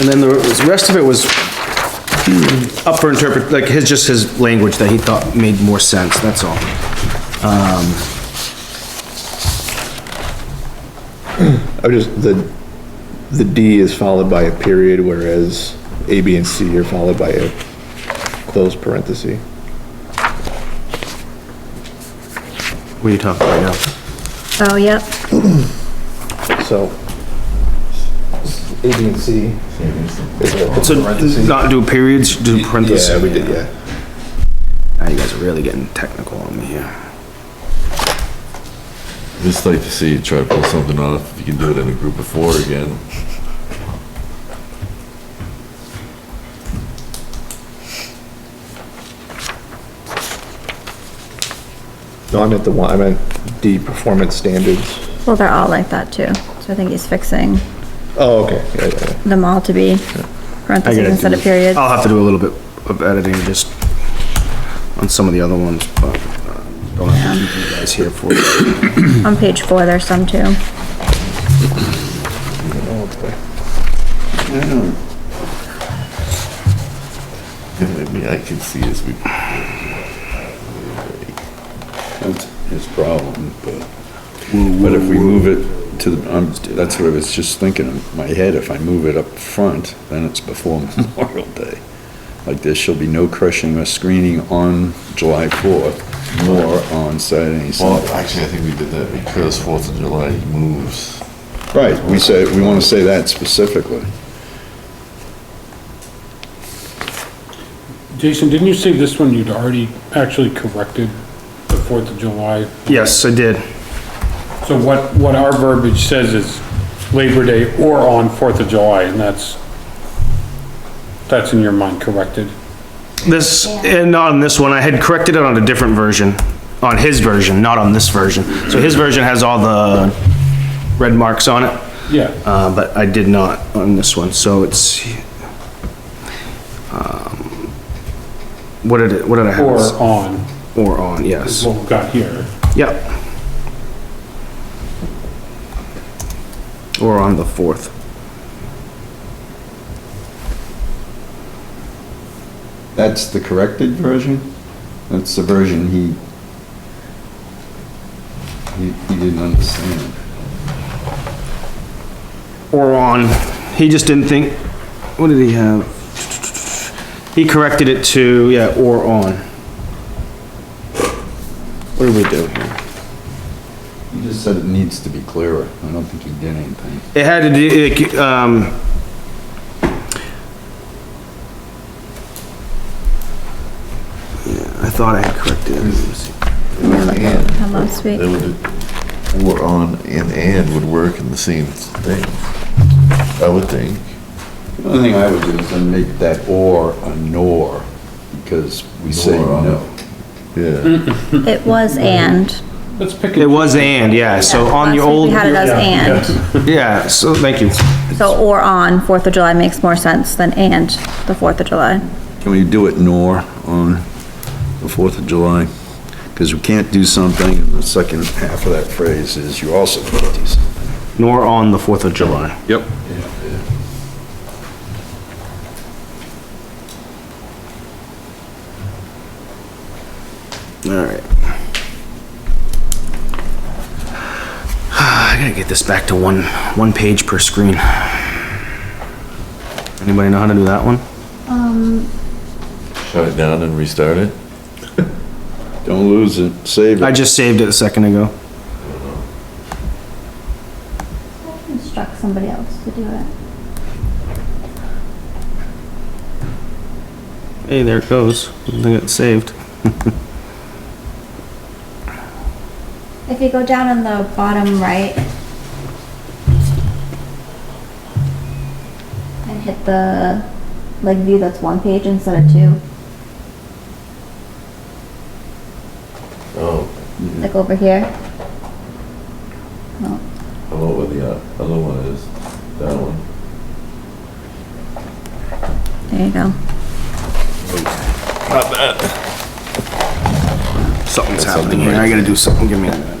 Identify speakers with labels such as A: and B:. A: And then the rest of it was up for interpret, like his, just his language that he thought made more sense, that's all.
B: I was just, the, the D is followed by a period, whereas A, B, and C are followed by a closed parenthesis.
A: What are you talking about now?
C: Oh, yep.
B: So, A, B, and C. is a
A: So
B: parenthesis.
A: not do periods, do parentheses?
B: Yeah, we did, yeah.
A: Now you guys are really getting technical on me here.
D: Just like to see you try to pull something off, if you can do it in a group of four again.
B: No, I meant the one, I meant D, performance standards.
C: Well, they're all like that too. So I think he's fixing
B: Oh, okay, yeah, yeah, yeah.
C: them all to be
A: I
C: parentheses
A: gotta
C: instead of
A: do-
C: periods.
A: I'll have to do a little bit of editing just on some of the other ones, but uh, don't have to keep you guys here for it.
C: On page four, there's some too.
B: Oh, okay.
D: Maybe I can see as we.
E: That's his problem, but, but if we move it to, the, I'm, that's what I was just thinking in my head, if I move it up front, then it's before Memorial Day. Like, there shall be no crushing or screening on July fourth, nor on Saturday,
D: Well,
E: Sunday.
D: actually, I think we did that because Fourth of July moves.
E: Right, we say, we wanna say that specifically.
F: Jason, didn't you say this one you'd already actually corrected the Fourth of July?
A: Yes, I did.
F: So what, what our verbiage says is Labor Day or on Fourth of July, and that's, that's in your mind corrected.
A: This, and not on this one, I had corrected it on a different version, on his version, not on this version. So his version has all the red marks on it,
F: Yeah,
A: uh, but I did not on this one, so it's. um, What did it, what did I
F: or
A: have?
F: on,
A: Or on,
F: is
A: yes.
F: what we've got here.
A: Yep. Or on the fourth.
E: That's the corrected version? That's the version he, he, he didn't understand.
A: or on, he just didn't think, what did he have? He corrected it to, yeah, or on. What did we do here?
E: He just said it needs to be clearer. I don't think he did anything.
A: It had to do, it, um. Yeah, I thought I had corrected it. Let me see.
D: And,
C: How last
D: they
C: week?
D: would, or on and and would work in the same thing, I would think.
E: The only thing I would do is then make that or a nor, because we say
D: Nor on
E: no.
D: Yeah,
C: It was and.
F: Let's pick
A: It
F: it.
A: was and, yeah, so on your
C: Last week
A: old,
C: We had it as
F: Yeah,
C: and.
A: yeah, so, thank you.
C: So or on Fourth of July makes more sense than and the Fourth of July.
E: Can we do it nor on the 4th of July? Because we can't do something, and the second half of that phrase is you also can't do something.
A: Nor on the Fourth of July.
E: Yep.
A: All right. I gotta get this back to one, one page per screen. Anybody know how to do that one?
D: shut it down and restart it.
E: Don't lose it, save
A: I
E: it.
A: just saved it a second ago.
C: Instruct somebody else to do it.
A: Hey, there it goes. I think it's saved.
C: If you go down on the bottom right and hit the like view that's one page instead of two,
D: Oh,
C: like over here. No,
D: hello, where the uh, other one is, that
E: uh,
D: one.
C: there you go.
A: Something's happening here. I gotta do something. Give me a minute.